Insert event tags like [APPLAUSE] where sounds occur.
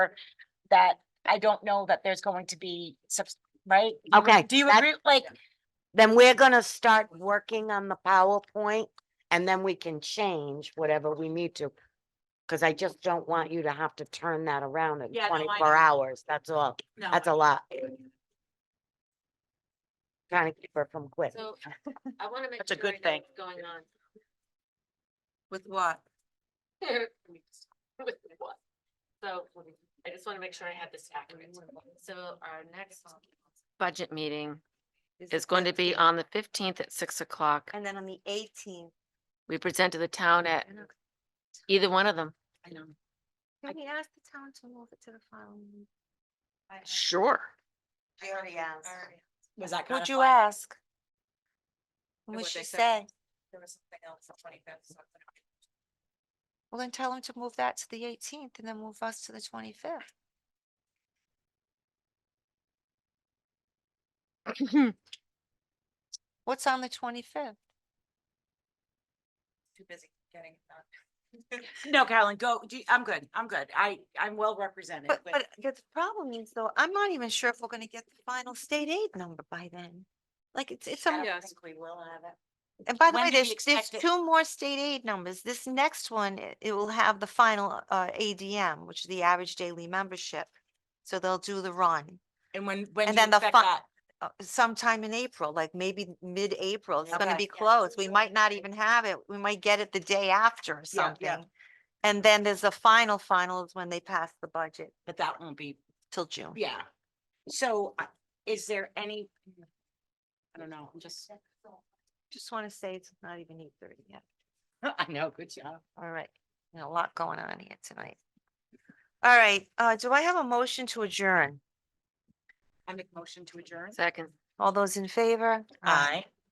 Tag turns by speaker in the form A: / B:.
A: that I don't know that there's going to be, subs- right? You re-
B: Okay,
A: Do you
B: that-
A: agree, like,
B: Then we're gonna start working on the PowerPoint and then we can change whatever we need to. Cause I just don't want you to have to turn that around in
C: Yeah, no, I
B: twenty-four
C: know.
B: hours. That's all.
C: No.
B: That's a lot. Trying to keep her from quitting.
D: So I want to make.
A: That's a
D: sure I
A: good
D: know
A: thing.
D: what's Going on.
C: With what?
D: [LAUGHS] With what? So I just want to make sure I have this accurate. So our next budget meeting is going to be on the fifteenth at six o'clock.
C: And then on the eighteenth,
D: We present to the town at either one of them.
C: I know. Can we ask the town to move it to the following?
D: Sure.
C: I already asked.
A: was that kind
C: Would
A: of?
C: you ask? What'd
E: what
C: she
E: they
C: say?
E: said. There was something else on twenty fifth, something.
C: Well, then tell them to move that to the eighteenth and then move us to
A: [CLEARS THROAT]
C: the twenty-fifth. What's on the twenty-fifth?
E: Too busy getting it done.
A: No, Carolyn, go, do- I'm good, I'm good, I, I'm well represented.
C: But,
A: but-
C: but the problem is though, I'm not even sure if we're gonna get the final state aid number by then. Like, it's, it's,
A: I
C: a-
A: don't
E: Yes.
A: think we will have it.
C: and by the
A: when
C: way,
A: do you
C: there's, there's
A: expect it-
C: two more state aid numbers. This next one, it- it will have the final, uh, ADM, which is the average daily membership. So they'll do the run.
A: And when, when do
C: And
A: you
C: then the
A: expect
C: fi-
A: that?
C: uh, sometime in April, like maybe mid-April, it's gonna
A: Okay.
C: be closed. We might not even have it. We might get it the day after or
A: Yeah, yeah.
C: something. And then there's the final, final is when they pass the budget
A: But that won't be,
C: till June.
A: yeah. So uh, is there any? I don't know, I'm just, [LAUGHS]
C: Just want to say it's not even eight thirty yet.
A: I know, good job.
C: All right, You know, a lot going on here tonight. All right, uh, do I have a motion to adjourn?
A: I make motion to adjourn.
D: Second.
C: All those in favor?
A: Aye.